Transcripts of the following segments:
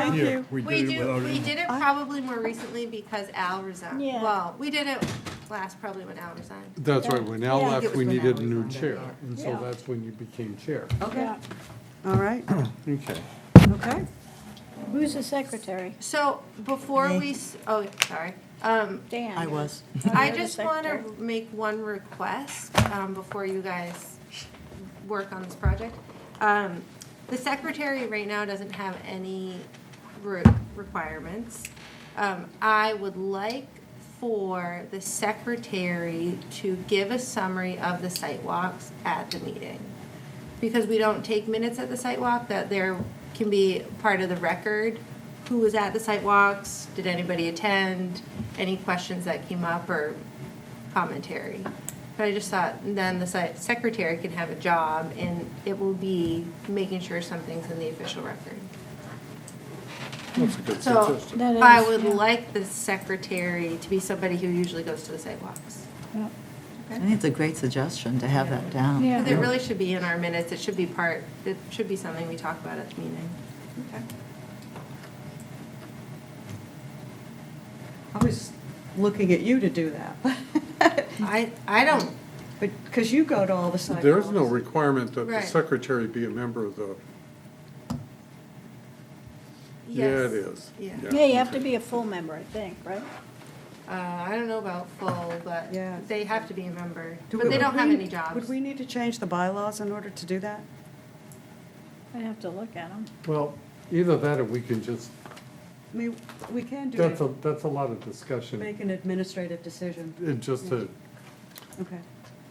Thank here. you. We We did it do, without we any. did it probably more recently because Al resigned. Yeah. Well, we did it last probably when Al resigned. That's right, when Al Yeah. I think left, it we was when needed a Al new resigned, chair, yeah. and so Yeah. that's when you became chair. Okay, Yeah. all right, Okay. okay. Who's the secretary? So before we, s- oh, sorry. Um, Dan. I was. I You're the just want to secretary. make one request um, before you guys work on this project. Um, The secretary right now doesn't have any re- requirements. Um, I would like for the secretary to give a summary of the site walks at the meeting. Because we don't take minutes at the site walk, that there can be part of the record, who was at the site walks, did anybody attend, any questions that came up or commentary. But I just thought, then the si- secretary can have a job, and it will be making sure something's in the official record. That's a good So, suggestion. That is, I would yeah. like the secretary to be somebody who usually goes to the sidewalks. Yeah. I think it's a great suggestion to have that down. Yeah. Because it really should be in our minutes, it should be part, it should be something we talk about at the meeting. I was looking at you to do that. I, I don't, But, because you go to all the sidewalks. There is no requirement that the Right. secretary be a member of the, yeah, it yes. is. Yeah. Yeah, you have to be a full member, I think, right? Uh, I don't know about full, but Yeah. they have to be a member, Do but we- they don't have would any we- jobs. Would we need to change the bylaws in order to do that? I'd have to look at them. Well, either that or we can just, I mean, we can do that's a, it, that's a lot of discussion. make an administrative decision. It just, a- Okay.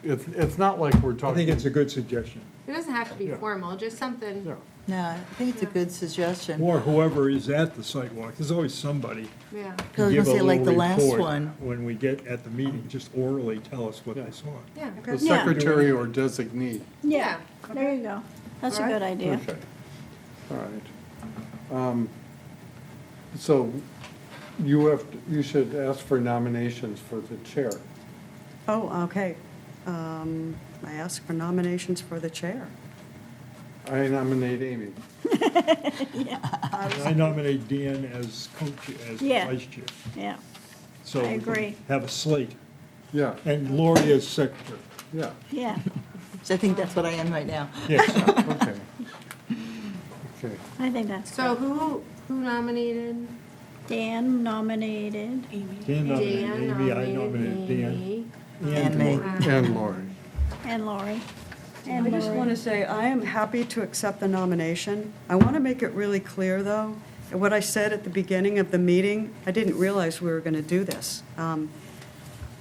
it's, it's not like we're I talking. think it's a good suggestion, It doesn't have to be Yeah. formal, just something, Yeah. No, I think it's a good suggestion. or whoever is at the sidewalk, there's always somebody. yeah. I was to gonna give a say, like the little last report one. When we get at the meeting, just orally tell us what they saw. Yeah. The Okay. Yeah. secretary or designee. Yeah, there you go. That's a All right. good idea. Okay, all right. Um, So you have, you should ask for nominations for the chair. Oh, okay. Um, I ask for nominations for the chair. I nominate Amy. I nominate Dan as coach, as Yeah. vice chair. Yeah, So I we can agree. Have a slate, Yeah, and Lori as secretary. yeah, yeah. So I think that's what I am right now. Yes, okay. Okay, I think that's So good. who, who nominated? Dan nominated. Dan nominated Dan Amy, I nominated Dan. Amy. And Lori. me. and Lori. And Lori. And I just Lori. want to say, I am happy to accept the nomination. I want to make it really clear, though, what I said at the beginning of the meeting, I didn't realize we were going to do this, um,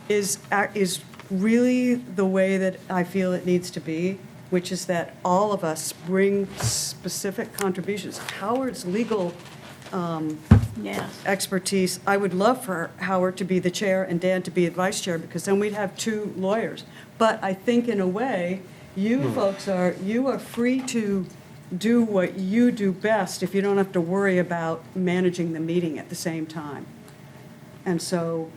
is, ac- is really the way that I feel it needs to be, which is that all of us bring specific contributions. Howard's legal Yes, expertise, I would love for Howard to be the chair and Dan to be the vice chair, because then we'd have two lawyers. But I think in a way, you folks are, you are free to do what you do best if you don't have to worry about managing the meeting at the same time. And so,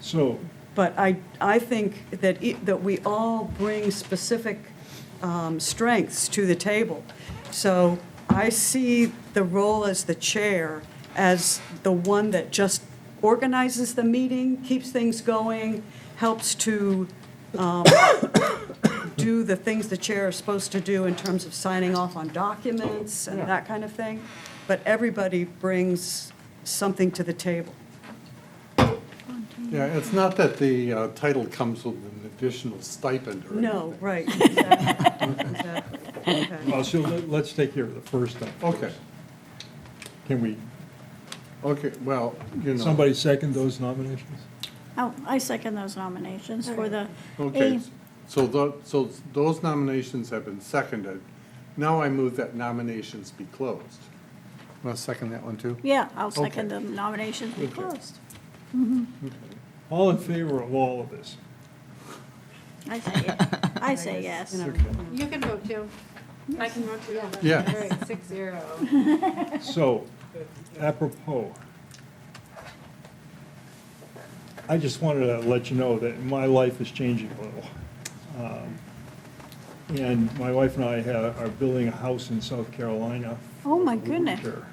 So, but I, I think that, e- that we all bring specific um, strengths to the table. So I see the role as the chair as the one that just organizes the meeting, keeps things going, helps to um, do the things the chair is supposed to do in terms of signing off on documents and that kind of thing. But everybody brings something to the table. Yeah, it's not that the uh, title comes with an additional stipend or anything. No, right, exactly, exactly, okay. well, uh, so let- let's take care of the first one. Okay, Can we, okay, well, you know. somebody second those nominations? oh, I second those nominations for the. Okay, A- so tho, so those nominations have been seconded. Now I move that nominations be closed. Want to second that one too? Yeah, I'll Okay. second the nominations be Okay. closed. All in favor of all of this? I say, yeah. I say yes. You can vote too. I can vote too. Yeah. All right, six zero. So, apropos, I just wanted to let you know that my life is changing a little. Um, And my wife and I ha- are building a house in South Carolina. Oh, my for the goodness. winter.